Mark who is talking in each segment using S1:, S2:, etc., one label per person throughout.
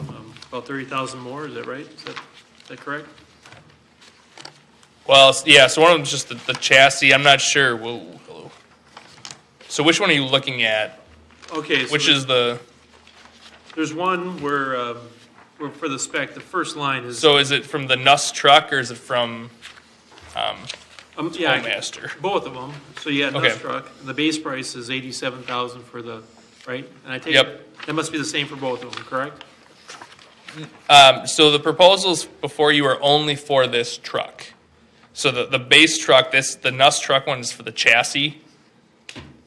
S1: About Um, oh, thirty thousand more, is that right? Is that, is that correct?
S2: Well, s- yeah, so one of them's just the, the chassis. I'm not sure. Whoa, hello. So which one are you looking at?
S1: Okay. so
S2: Which is the,
S1: There's one where, um, where for the spec, the first line is,
S2: so is it from the Nuss truck or is it from
S1: um, yeah, I-
S2: Homemaster?
S1: both of them. So you had
S2: Okay.
S1: Nuss Truck, and the base price is eighty-seven thousand for the, right? And I take
S2: Yep.
S1: it, that must be the same for both of them, correct?
S2: Um, so the proposals before you are only for this truck. So the, the base truck, this, the Nuss truck one is for the chassis.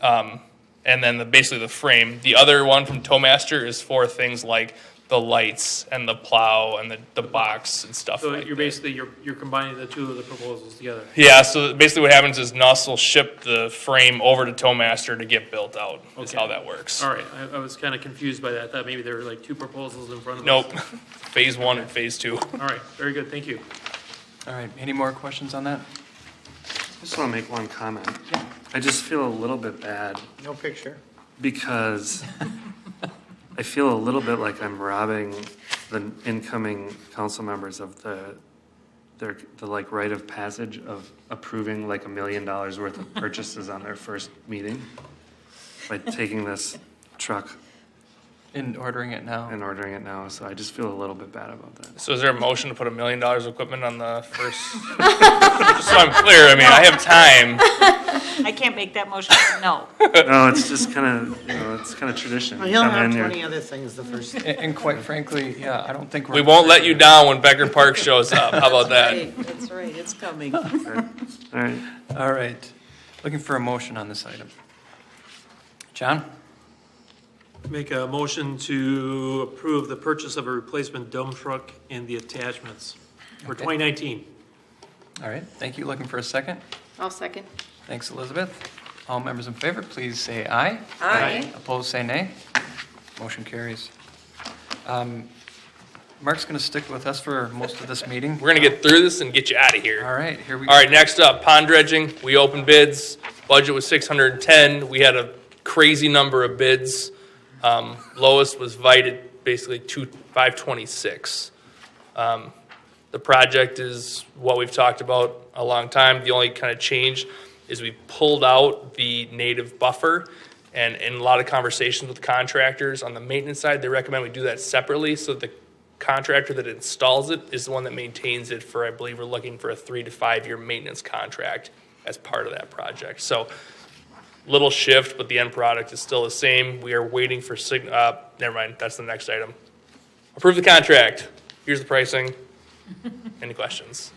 S2: Um, and then the, basically the frame. The other one from Towmaster is for things like the lights and the plow and the, the box and stuff
S1: So
S2: like
S1: you're
S2: that.
S1: basically, you're, you're combining the two of the proposals together.
S2: Yeah, so basically what happens is Nuss will ship the frame over to Towmaster to get built out, is
S1: Okay.
S2: how that works.
S1: All right, I, I was kind of confused by that. I thought maybe there were like two proposals in front of us.
S2: Nope, phase one and phase two.
S1: All right, very good, thank you.
S3: All right, any more questions on that?
S4: I just want to make one comment. I just feel a little bit bad
S5: No picture.
S4: because I feel a little bit like I'm robbing the incoming council members of the, their, the like rite of passage of approving like a million dollars worth of purchases on their first meeting by taking this truck
S3: In ordering it now?
S4: and ordering it now. So I just feel a little bit bad about that.
S2: So is there a motion to put a million dollars of equipment on the first? Just so I'm clear, I mean, I have time.
S6: I can't make that motion, no.
S4: No, it's just kind of, you know, it's kind of tradition.
S5: Well, he'll
S4: Come in
S5: have
S4: here.
S5: twenty other things the first.
S3: And and quite frankly, yeah, I don't think we're.
S2: We won't let you down when Becker Park shows up, how about that?
S7: Right, That's right, it's coming.
S4: All right.
S3: All right, looking for a motion on this item. John?
S1: Make a motion to approve the purchase of a replacement dump truck and the attachments for
S3: Okay.
S1: 2019.
S3: All right, thank you, looking for a second?
S7: I'll second.
S3: Thanks, Elizabeth. All members in favor, please say aye.
S7: Aye.
S3: Opposed, say nay. Motion carries. Um, Mark's going to stick with us for most of this meeting.
S2: We're gonna get through this and get you out of here.
S3: All right, here we go.
S2: All right, next up, pond dredging. We opened bids. Budget was six hundred and ten. We had a crazy number of bids. Um, lowest was Vited, basically two, five twenty-six. Um, the project is what we've talked about a long time. The only kind of change is we pulled out the native buffer. And in a lot of conversations with contractors on the maintenance side, they recommend we do that separately so that the contractor that installs it is the one that maintains it for, I believe, we're looking for a three to five-year maintenance contract as part of that project. So little shift, but the end product is still the same. We are waiting for sign, uh, never mind, that's the next item. Approve the contract. Here's the pricing. Any questions?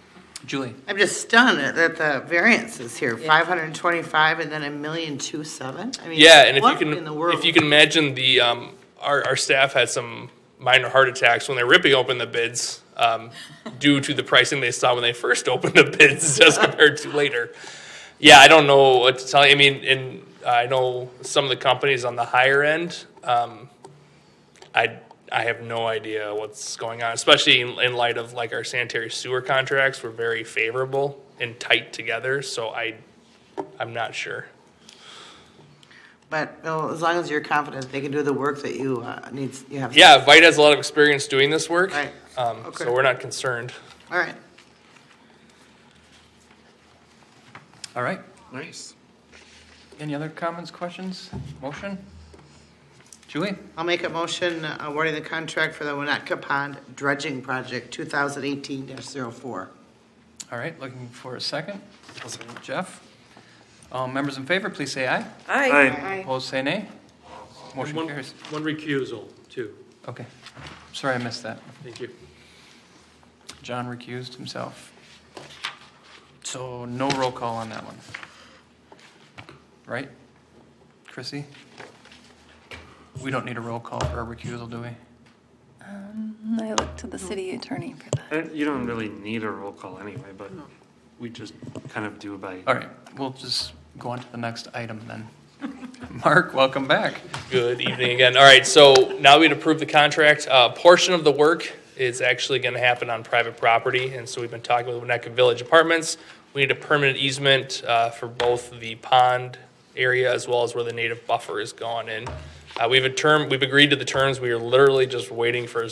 S3: Julie,
S5: I'm just stunned at- that the variance is here, five hundred and twenty-five and then a million two seven? I mean,
S2: Yeah, and if you
S5: what in the
S2: can,
S5: world?
S2: if you can imagine the, um, our, our staff had some minor heart attacks when they're ripping open the bids, um, due to the pricing they saw when they first opened the bids as compared to later. Yeah, I don't know what to tell you. I mean, and I know some of the companies on the higher end, um, I, I have no idea what's going on, especially in, in light of like our sanitary sewer contracts were very favorable and tight together, so I, I'm not sure.
S5: But, well, as long as you're confident they can do the work that you, uh, needs, you have.
S2: Yeah, Vite has a lot of experience doing this work.
S5: Right.
S2: Um,
S5: Okay.
S2: so we're not concerned.
S5: All right.
S3: all right.
S4: Nice.
S3: Any other comments, questions, motion? Julie?
S5: I'll make a motion uh, awarding the contract for the Winnetka Pond dredging project, two thousand eighteen 4
S3: All right, looking for a second. Jeff? All members in favor, please say aye.
S4: Aye.
S3: Opposed, say nay. Motion
S1: One-
S3: carries.
S1: One recusal, too.
S3: Okay. Sorry, I missed that.
S1: Thank you.
S3: John recused himself. So no roll call on that one. Right? Chrissy? We don't need a roll call for a recusal, do we?
S8: I look to the city attorney for that.
S4: Uh, You don't really need a roll call anyway, but we just kind of do by.
S3: All right, we'll just go on to the next item then. Mark, welcome back.
S2: Good evening again. All right, so now we'd approve the contract. A portion of the work is actually going to happen on private property, and so we've been talking with Winnetka Village Apartments. We need a permanent easement uh, for both the pond area as well as where the native buffer is going in. Uh, We have a term, we've agreed to the terms. We are literally just waiting for